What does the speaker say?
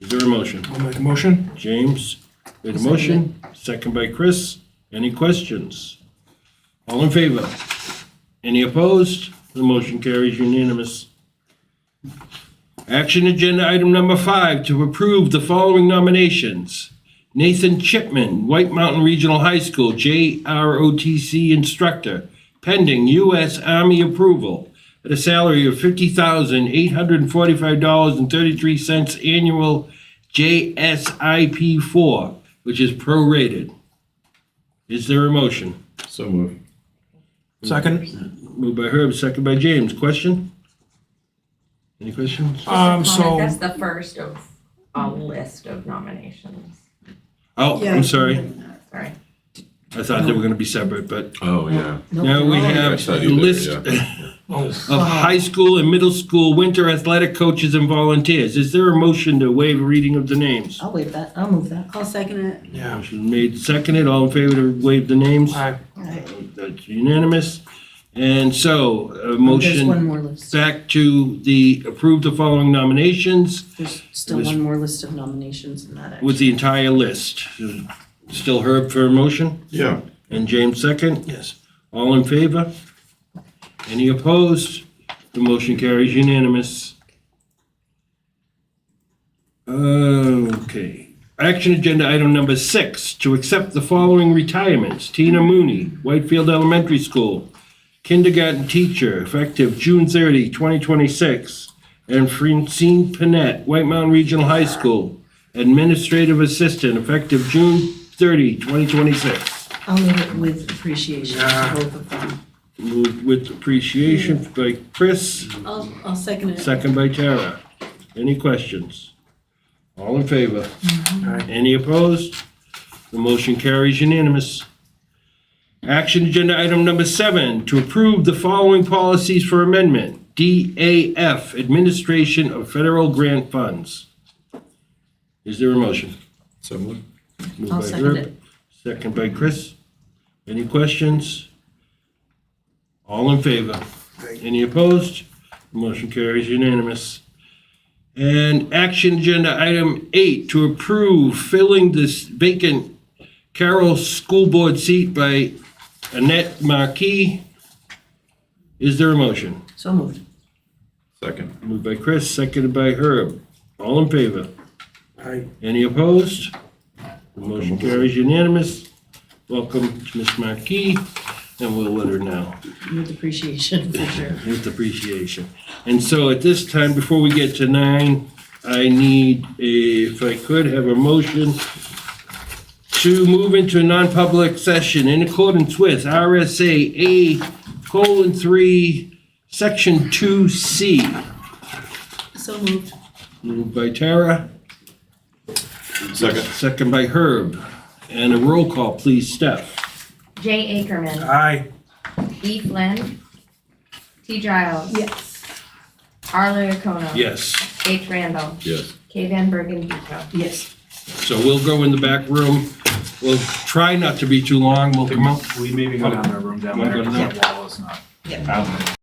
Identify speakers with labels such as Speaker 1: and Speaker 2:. Speaker 1: there a motion?
Speaker 2: I'll make a motion.
Speaker 1: James made a motion, second by Chris. Any questions? All in favor? Any opposed? The motion carries unanimous. Action agenda item number five, to approve the following nominations. Nathan Chipman, White Mountain Regional High School JROTC instructor, pending U.S. Army approval at a salary of $50,845.33 annual JSIP 4, which is prorated. Is there a motion?
Speaker 3: So moved.
Speaker 2: Second.
Speaker 1: Moved by Herb, second by James. Question? Any questions?
Speaker 2: Um,
Speaker 4: Just a
Speaker 2: so,
Speaker 4: comment, That's the first of a list of nominations.
Speaker 1: Oh,
Speaker 5: Yeah,
Speaker 1: I'm sorry.
Speaker 4: Sorry.
Speaker 1: I thought they were going to be separate, but
Speaker 3: Oh, yeah.
Speaker 5: Nope.
Speaker 1: now we have
Speaker 3: I
Speaker 1: the
Speaker 3: thought you did,
Speaker 1: list
Speaker 3: yeah.
Speaker 2: oh,
Speaker 1: of high school and middle school winter athletic coaches and volunteers. Is there a motion to waive reading of the names?
Speaker 5: I'll waive that, I'll move that.
Speaker 6: I'll second it.
Speaker 2: yeah.
Speaker 1: Motion made, seconded. All in favor to waive the names?
Speaker 2: Aye.
Speaker 1: That's unanimous. And so, a
Speaker 5: Oh, There's one
Speaker 1: motion
Speaker 5: more list,
Speaker 1: back to the approve the following nominations
Speaker 5: there's still
Speaker 1: There's-
Speaker 5: one more list of nominations in that action.
Speaker 1: with the entire list. Still Herb for a motion
Speaker 3: Yeah.
Speaker 1: and James second.
Speaker 2: Yes.
Speaker 1: All in favor? Any opposed? The motion carries unanimous. Okay. Action agenda item number six, to accept the following retirements. Tina Mooney, Whitefield Elementary School, kindergarten teacher, effective June 30, 2026. And Francine Panett, White Mountain Regional High School, administrative assistant, effective June 30, 2026.
Speaker 5: I'll move it with appreciation
Speaker 2: Yeah.
Speaker 5: to both of them.
Speaker 1: Moved with appreciation by Chris,
Speaker 6: I'll, I'll second it.
Speaker 1: second by Tara. Any questions? All in favor?
Speaker 2: Aye.
Speaker 1: Any opposed? The motion carries unanimous. Action agenda item number seven, to approve the following policies for amendment. DAF, Administration of Federal Grant Funds. Is there a motion?
Speaker 3: So moved.
Speaker 1: Moved
Speaker 5: I'll
Speaker 1: by
Speaker 5: second
Speaker 1: Herb,
Speaker 5: it.
Speaker 1: Second by Chris. Any questions? All in favor? Any opposed? Motion carries unanimous. And action agenda item eight, to approve filling this vacant Carroll School Board seat by Annette Marquis. Is there a motion?
Speaker 5: So moved.
Speaker 3: Second.
Speaker 1: Moved by Chris, seconded by Herb. All in favor?
Speaker 2: Aye.
Speaker 1: Any opposed? The motion carries unanimous. Welcome to Ms. Markey, and we'll let her know
Speaker 5: With appreciation, for sure.
Speaker 1: with appreciation. And so at this time, before we get to nine, I need, a- if I could, have a motion to move into a non-public session in accordance with RSA A colon three, section two C.
Speaker 6: So moved.
Speaker 1: Moved by Tara.
Speaker 3: Second.
Speaker 1: Second by Herb. And a roll call, please, Steph.
Speaker 4: Jay Ackerman,
Speaker 2: Aye.
Speaker 4: E Flynn, T Giles,
Speaker 6: Yes.
Speaker 4: Arlo Acuna.
Speaker 1: Yes.
Speaker 4: H Randall,
Speaker 3: Yes.
Speaker 4: K Van Bergen Duco.
Speaker 5: Yes.
Speaker 1: So we'll go in the back room. We'll try not to be too long. We'll come out.
Speaker 7: We maybe go down to our room down
Speaker 1: Wanna
Speaker 7: there,
Speaker 1: go
Speaker 7: because
Speaker 1: down
Speaker 7: that wall is not.
Speaker 5: Yeah.
Speaker 7: out.